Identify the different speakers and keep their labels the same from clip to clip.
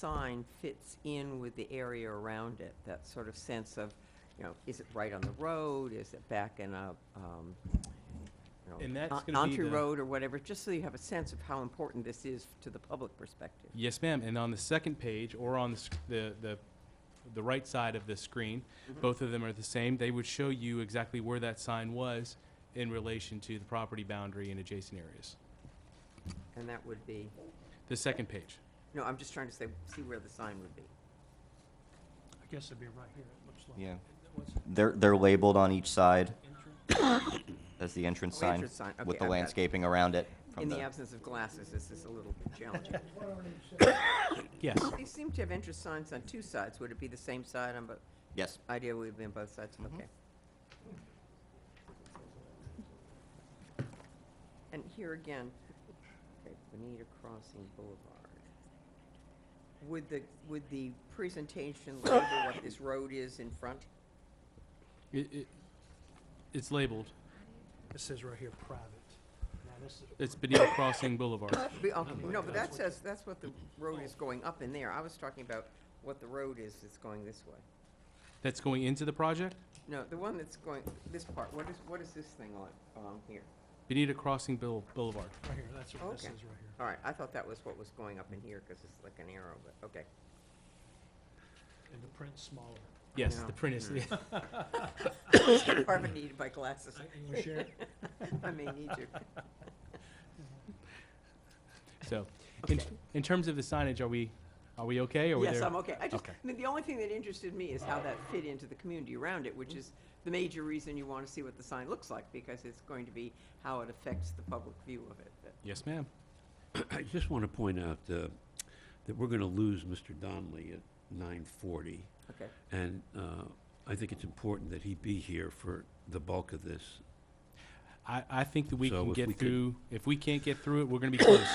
Speaker 1: sign fits in with the area around it, that sort of sense of, you know, is it right on the road, is it back in a, um, you know,
Speaker 2: And that's
Speaker 1: on-
Speaker 2: gonna be
Speaker 1: onto
Speaker 2: the-
Speaker 1: Road or whatever, just so you have a sense of how important this is to the public perspective.
Speaker 2: Yes, ma'am. And on the second page, or on the sc- the, the, the right side of the screen,
Speaker 1: Mm-hmm.
Speaker 2: both of them are the same. They would show you exactly where that sign was in relation to the property boundary and adjacent areas.
Speaker 1: And that would be,
Speaker 2: The second page.
Speaker 1: no, I'm just trying to say, see where the sign would be.
Speaker 3: I guess it'd be right here, it looks like.
Speaker 4: Yeah.
Speaker 3: What's
Speaker 4: They're, they're labeled on each side
Speaker 3: entrance?
Speaker 4: as the entrance
Speaker 1: Oh,
Speaker 4: sign
Speaker 1: entrance sign. Okay,
Speaker 4: with the
Speaker 1: I've got it.
Speaker 4: landscaping around it. from
Speaker 1: In the absence of glasses, this is a little challenging.
Speaker 2: Yes.
Speaker 1: They seem to have interest signs on two sides. Would it be the same side on both?
Speaker 4: Yes.
Speaker 1: Ideally, it would be on both sides, okay. And here again, okay, Bonita Crossing Boulevard. Would the, would the presentation label what this road is in front?
Speaker 2: It, it, it's labeled.
Speaker 3: It says right here, private. Now, this is.
Speaker 2: It's Benita Crossing Boulevard.
Speaker 1: Be- okay, No, but that says, that's what the road is going up in there. I was talking about what the road is that's going this way.
Speaker 2: That's going into the project?
Speaker 1: No, the one that's going, this part, what is, what is this thing on, on here?
Speaker 2: Benita Crossing Boul- Boulevard.
Speaker 3: Right here, that's what this
Speaker 1: Okay.
Speaker 3: is right here.
Speaker 1: All right, I thought that was what was going up in here, because it's like an arrow, but, okay.
Speaker 3: And the print's smaller.
Speaker 2: Yes,
Speaker 1: Yeah.
Speaker 2: the print is,
Speaker 1: Harvard needed my glasses.
Speaker 3: I- You wanna share it?
Speaker 1: I may need you.
Speaker 2: so. In,
Speaker 1: Okay.
Speaker 2: in terms of the signage, are we, are we okay? Are we
Speaker 1: Yes,
Speaker 2: there?
Speaker 1: I'm okay. I just,
Speaker 2: Okay.
Speaker 1: I mean, the only thing that interested me is how that fit into the community around it, which is the major reason you want to see what the sign looks like, because it's going to be how it affects the public view of it. But-
Speaker 2: Yes, ma'am.
Speaker 5: I just want to point out uh, that we're going to lose Mr. Donnelly at 9:40,
Speaker 1: Okay,
Speaker 5: and uh, I think it's important that he be here for the bulk of this.
Speaker 2: I, I think that we
Speaker 5: So
Speaker 2: can
Speaker 5: if we
Speaker 2: get
Speaker 5: could-
Speaker 2: through, if we can't get through it, we're gonna be close.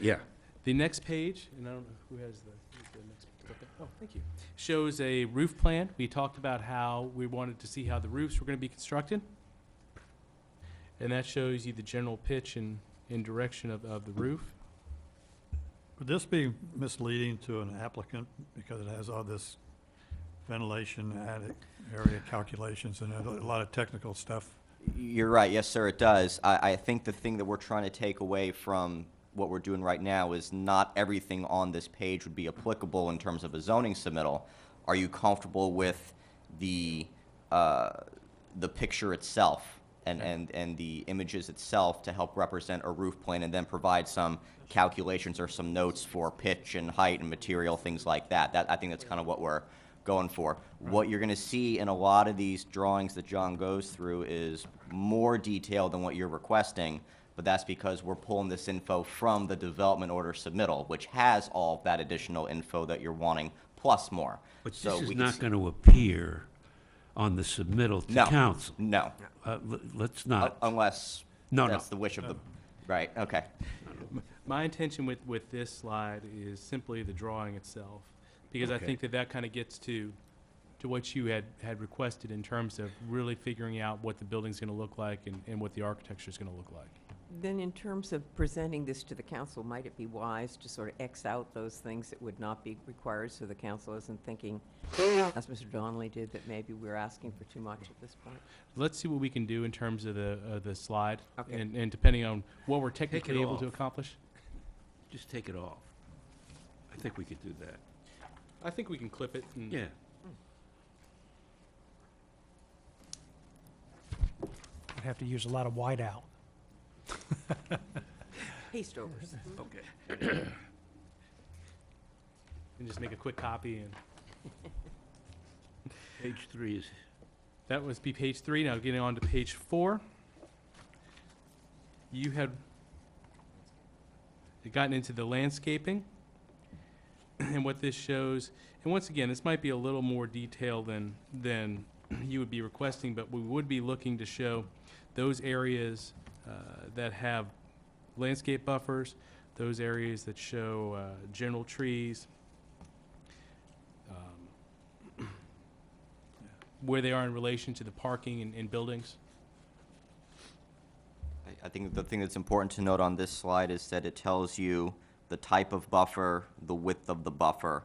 Speaker 5: Yeah.
Speaker 2: The next page, and I don't know who has the, who's the next, okay, oh, thank you, shows a roof plan. We talked about how we wanted to see how the roofs were gonna be constructed. And that shows you the general pitch and, and direction of, of the roof.
Speaker 6: Would this be misleading to an applicant because it has all this ventilation, attic area calculations and a lot of technical stuff?
Speaker 4: You're right, yes, sir, it does. I, I think the thing that we're trying to take away from what we're doing right now is not everything on this page would be applicable in terms of a zoning submittal. Are you comfortable with the, uh, the picture itself and, and, and the images itself to help represent a roof plan and then provide some calculations or some notes for pitch and height and material, things like that? That, I think that's kind of what we're, going for.
Speaker 5: Mm-hmm.
Speaker 4: What you're going to see in a lot of these drawings that John goes through is more detail than what you're requesting, but that's because we're pulling this info from the development order submittal, which has all of that additional info that you're wanting, plus more.
Speaker 5: But
Speaker 4: So
Speaker 5: this is
Speaker 4: we can
Speaker 5: not
Speaker 4: see-
Speaker 5: going to appear on the submittal
Speaker 4: No,
Speaker 5: to council.
Speaker 4: No,
Speaker 5: Uh, l- Let's
Speaker 4: Un-
Speaker 5: not.
Speaker 4: unless
Speaker 5: No, no.
Speaker 4: that's the wish of the, right, okay.
Speaker 2: My intention with, with this slide is simply the drawing itself, because I
Speaker 5: Okay.
Speaker 2: think that that kind of gets to, to what you had, had requested in terms of really figuring out what the building's gonna look like and, and what the architecture's gonna look like.
Speaker 1: Then in terms of presenting this to the council, might it be wise to sort of X out those things that would not be required, so the council isn't thinking, as Mr. Donnelly did, that maybe we're asking for too much at this point?
Speaker 2: Let's see what we can do in terms of the, of the slide.
Speaker 1: Okay.
Speaker 2: And, and depending on what we're technically able to
Speaker 5: off.
Speaker 2: accomplish.
Speaker 5: Just take it off. I think we could do that.
Speaker 2: I think we can clip it and.
Speaker 5: Yeah.
Speaker 3: I'd have to use a lot of whiteout.
Speaker 1: Haste overs.
Speaker 5: Okay.
Speaker 2: And just make a quick copy and,
Speaker 5: Page three is
Speaker 2: that was be page three. Now getting on to page four. You had gotten into the landscaping. And what this shows, and once again, this might be a little more detailed than, than you would be requesting, but we would be looking to show those areas uh, that have landscape buffers, those areas that show uh, general trees, um, where they are in relation to the parking and, and buildings.
Speaker 4: I- I think the thing that's important to note on this slide is that it tells you the type of buffer, the width of the buffer,